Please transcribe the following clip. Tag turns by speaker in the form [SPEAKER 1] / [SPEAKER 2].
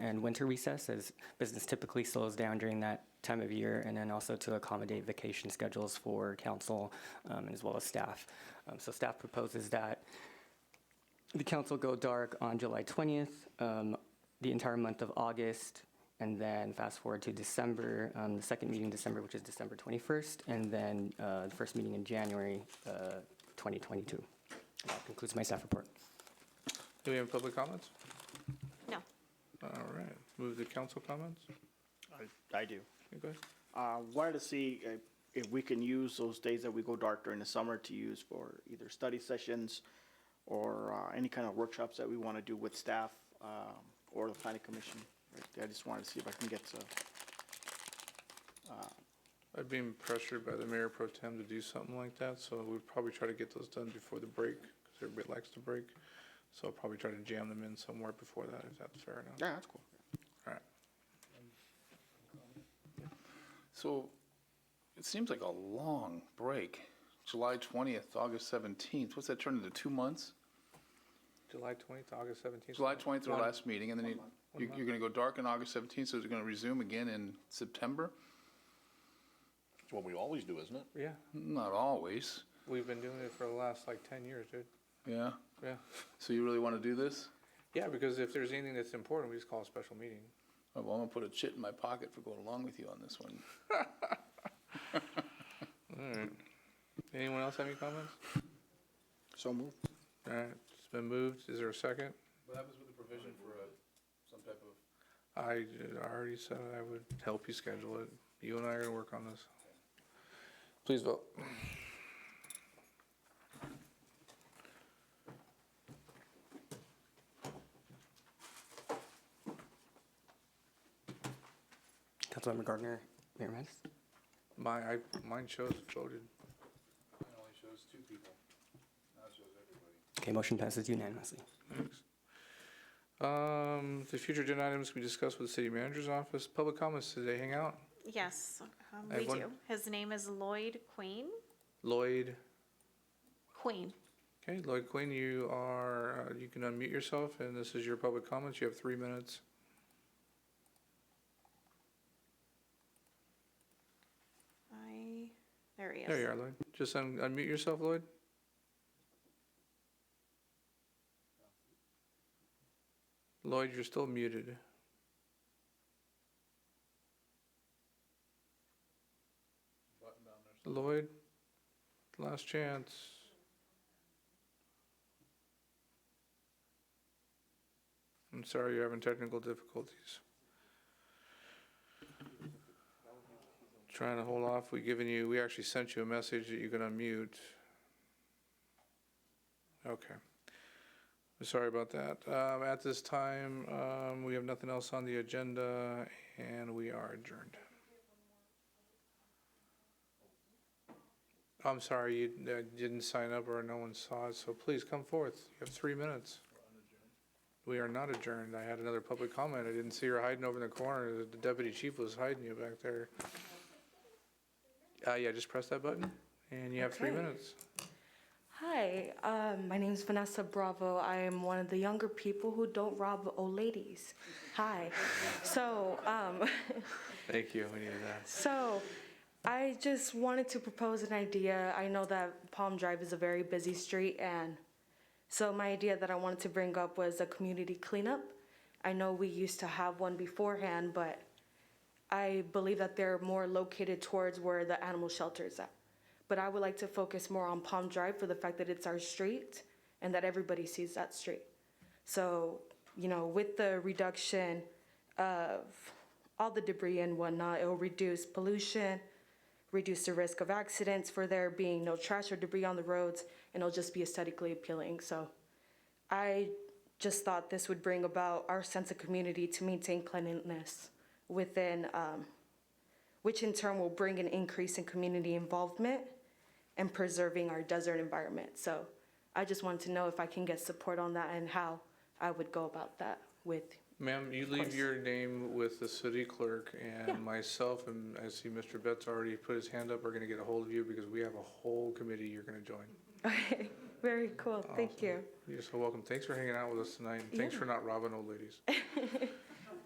[SPEAKER 1] and winter recess as business typically slows down during that time of year, and then also to accommodate vacation schedules for council um, as well as staff. Um, So staff proposes that the council go dark on July 20th, um, the entire month of August, and then fast forward to December, um, the second meeting in December, which is December 21st, and then uh, the first meeting in January uh, 2022. That concludes my staff report.
[SPEAKER 2] Do we have public comments?
[SPEAKER 3] No.
[SPEAKER 2] All right, move to council comments.
[SPEAKER 4] I, I do.
[SPEAKER 2] You guys?
[SPEAKER 4] Uh, wanted to see uh, if we can use those days that we go dark during the summer to use for either study sessions or, uh, any kind of workshops that we want to do with staff, um, or the planning commission. I just wanted to see if I can get, uh,
[SPEAKER 2] I've been pressured by the mayor pro tem to do something like that, so we'd probably try to get those done before the break, because everybody likes to break. So I'll probably try to jam them in somewhere before that, if that's fair enough.
[SPEAKER 4] yeah, that's cool.
[SPEAKER 2] All right.
[SPEAKER 5] So it seems like a long break. July 20th, August 17th. What's that turn into two months?
[SPEAKER 2] July twentieth, August seventeenth.
[SPEAKER 5] July 20th, our last meeting, and then you, you're, you're going to go dark on August 17th, so it's going to resume again in September?
[SPEAKER 6] It's what we always do, isn't it?
[SPEAKER 2] Yeah,
[SPEAKER 5] Not always.
[SPEAKER 2] we've been doing it for the last like ten years, dude.
[SPEAKER 5] Yeah.
[SPEAKER 2] Yeah.
[SPEAKER 5] So you really want to do this?
[SPEAKER 2] Yeah, because if there's anything that's important, we just call a special meeting.
[SPEAKER 5] Oh, Well, I'm going to put a chit in my pocket for going along with you on this one.
[SPEAKER 2] All right. Anyone else have any comments?
[SPEAKER 4] So move.
[SPEAKER 2] All right, it's been moved. Is there a second?
[SPEAKER 5] What happens with the provision for uh, some type of
[SPEAKER 2] I I already said I would help you schedule it. You and I are gonna work on this. Please vote.
[SPEAKER 1] Councilmember Gardner, Mayor Mattis?
[SPEAKER 2] My, I, mine shows voted.
[SPEAKER 5] It only shows two people. Now it shows everybody.
[SPEAKER 1] Okay, motion passes unanimously.
[SPEAKER 2] Um, the future agenda items can be discussed with the city manager's office. Public comments today, hang out.
[SPEAKER 3] Yes, um,
[SPEAKER 2] I have
[SPEAKER 3] we
[SPEAKER 2] one-
[SPEAKER 3] do. His name is Lloyd Queen.
[SPEAKER 2] Lloyd,
[SPEAKER 3] Queen.
[SPEAKER 2] okay, Lloyd Quinn, you are, uh, you can unmute yourself and this is your public comments. You have three minutes.
[SPEAKER 3] I, there he is.
[SPEAKER 2] There you are, Lloyd. Just un- unmute yourself, Lloyd. Lloyd, you're still muted. Lloyd, last chance. I'm sorry you're having technical difficulties. Trying to hold off, we given you, we actually sent you a message that you can unmute. Okay. Sorry about that. Um, at this time, um, we have nothing else on the agenda and we are adjourned. I'm sorry, you uh, didn't sign up or no one saw it, so please come forth. You have three minutes. We are not adjourned. I had another public comment. I didn't see her hiding over in the corner. The deputy chief was hiding you back there. Uh, yeah, just press that button and you have three
[SPEAKER 7] Okay.
[SPEAKER 2] minutes.
[SPEAKER 7] Hi, um, my name is Vanessa Bravo. I am one of the younger people who don't rob old ladies. Hi. So, um,
[SPEAKER 2] Thank you. We needed that.
[SPEAKER 7] so I just wanted to propose an idea. I know that Palm Drive is a very busy street, and so my idea that I wanted to bring up was a community cleanup. I know we used to have one beforehand, but I believe that they're more located towards where the animal shelter is at. But I would like to focus more on Palm Drive for the fact that it's our street and that everybody sees that street. So, you know, with the reduction of all the debris and whatnot, it'll reduce pollution, reduce the risk of accidents for there being no trash or debris on the roads, and it'll just be aesthetically appealing. So I just thought this would bring about our sense of community to maintain cleanliness within, um, which in turn will bring an increase in community involvement and preserving our desert environment. So I just wanted to know if I can get support on that and how I would go about that with,
[SPEAKER 2] Ma'am, you leave
[SPEAKER 7] course.
[SPEAKER 2] your name with the city clerk
[SPEAKER 7] Yeah.
[SPEAKER 2] and myself, and I see Mr. Betts already put his hand up, are gonna get a hold of you because we have a whole committee you're gonna join.
[SPEAKER 7] okay, very cool, thank
[SPEAKER 2] Awesome.
[SPEAKER 7] you.
[SPEAKER 2] You're so welcome. Thanks for hanging out with us tonight, and thanks
[SPEAKER 7] Yeah.
[SPEAKER 2] for not robbing old ladies.